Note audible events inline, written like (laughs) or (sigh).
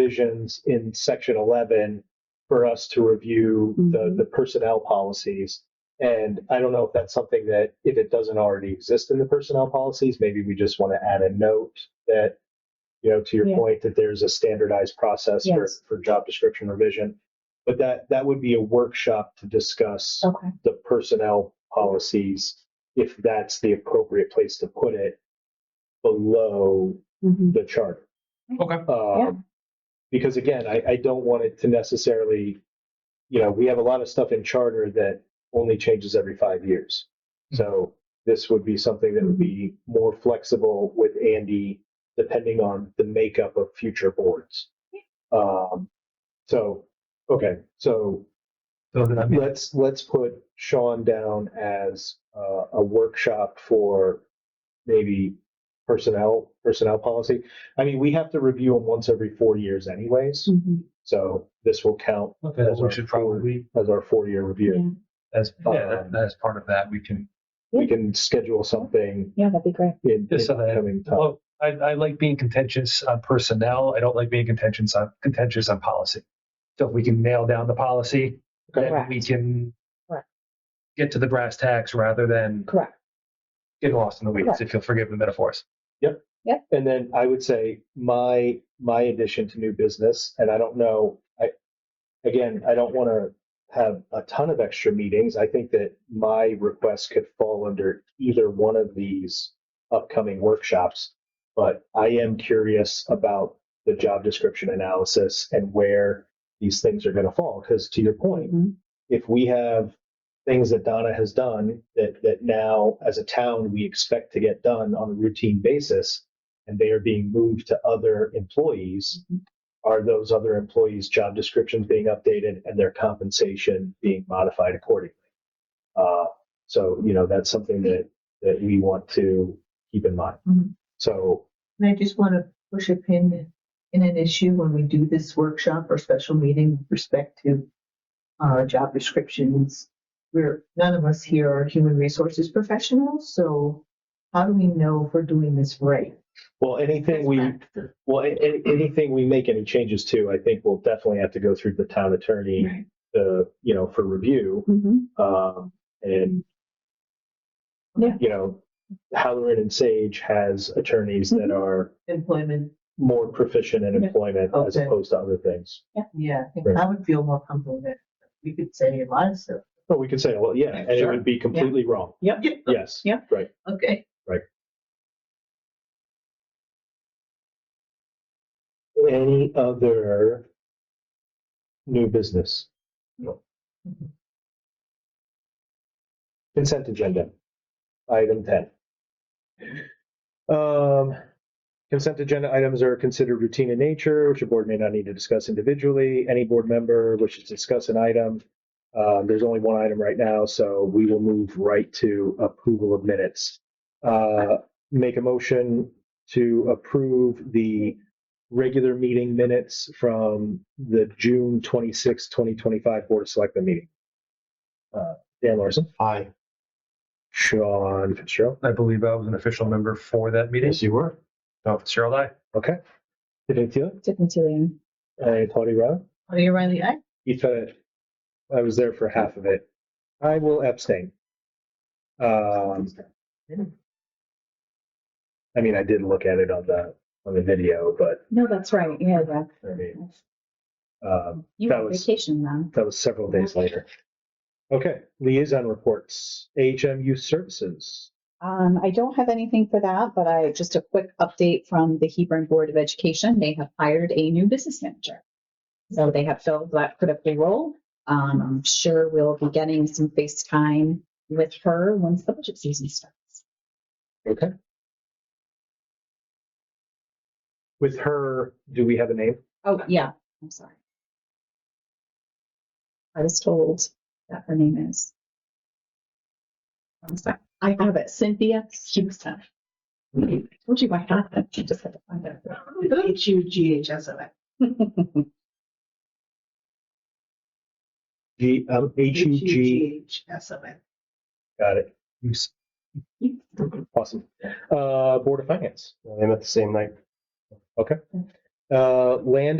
provisions in section 11 for us to review the, Mhm. the personnel policies. And I don't know if that's something that, if it doesn't already exist in the personnel policies, maybe we just want to add a note that, you know, to your Yeah. point, that there's a standardized process for, Yes. for job description revision. But that, that would be a workshop to discuss Okay. the personnel policies, if that's the appropriate place to put it below Mhm. the charter. Okay. Um, Yeah. Because again, I, I don't want it to necessarily, you know, we have a lot of stuff in charter that only changes every five years. So this would be something that would be more flexible with Andy, depending on the makeup of future boards. Um, so, okay, so So that means let's, let's put Sean down as, uh, a workshop for maybe personnel, personnel policy. I mean, we have to review them once every four years anyways, Hmm. Mhm. so this will count that we should probably, as our four-year review. Yeah. as, yeah, that- as part of that, we can, We can schedule something Yeah, that'd be great. in in Just so that- coming time. well, I, I like being contentious on personnel. I don't like being contentious on, contentious on policy. So if we can nail down the policy, then Correct. we can Correct. get to the brass tacks rather than Correct. get lost in the weeds, Correct. if you'll forgive the metaphors. And then I would say my my addition to new business, and I don't know, I again, I don't want to have a ton of extra meetings. I think that my request could fall under either one of these upcoming workshops, but I am curious about the job description analysis and where these things are going to fall. Because to your point, Mhm. if we have things that Donna has done that that now as a town we expect to get done on a routine basis and they are being moved to other employees Mhm. are those other employees job descriptions being updated and their compensation being modified accordingly uh, so you know that's something that that we want to keep in mind Mm-hmm. Mhm. so And I just want to push a pin in an issue when we do this workshop or special meeting with respect to uh, job descriptions. We're, none of us here are human resources professionals, so how do we know if we're doing this right? well anything we well a- a- anything we make any changes to i think we'll definitely have to go through the town attorney Right. uh, you know for review Mhm. um, and Yeah. you know, Halloran and Sage has attorneys that Mhm. are Employment, more proficient in Yeah. employment as Okay. opposed to other things. yeah, I think Right. I would feel more comfortable that we could say a lot of stuff. But we could say, well, yeah, and it Sure. would be completely wrong. Yep. Yes. Yeah. Right. Okay. Any other new business? Consent agenda, item ten. Um, consent agenda items are considered routine in nature, which a board may not need to discuss individually. Any board member wishes to discuss an item. Uh, there's only one item right now, so we will move right to approval of minutes. Uh, make a motion to approve the regular meeting minutes from the June 26, 2025 Board of Selectmen meeting. Uh, Dan Larson. Aye. Sean Fitzgerald. I believe I was an official member for that meeting. you were. So Fitzgerald, I. Okay. Tiffany Teal. Tiffany Tillian. I, Tony Rowe. Are you Riley? I, Ethan, I was there for half of it. I will abstain. Um, I mean, I did look at it on the, on the video, but No, that's right. Yeah, that. I mean, um, You That were on was- vacation then. That was several days later. Okay, liaison reports, AHM Youth Services. Um, I don't have anything for that, but I, just a quick update from the Hebron Board of Education. They have hired a new business manager. So they have filled that critical role. Um, I'm sure we'll be getting some FaceTime with her once the budget season starts. Okay. With her, do we have a name? Oh, yeah, I'm sorry. I was told that her name is. One sec. I have it, Cynthia Houston. I Told you I had that, you just had to find it. H U G H S O N. G, um, H U G. H S O N. Got it. You s- (laughs) Awesome. Uh, Board of Finance. They met the same night. Okay. Uh, land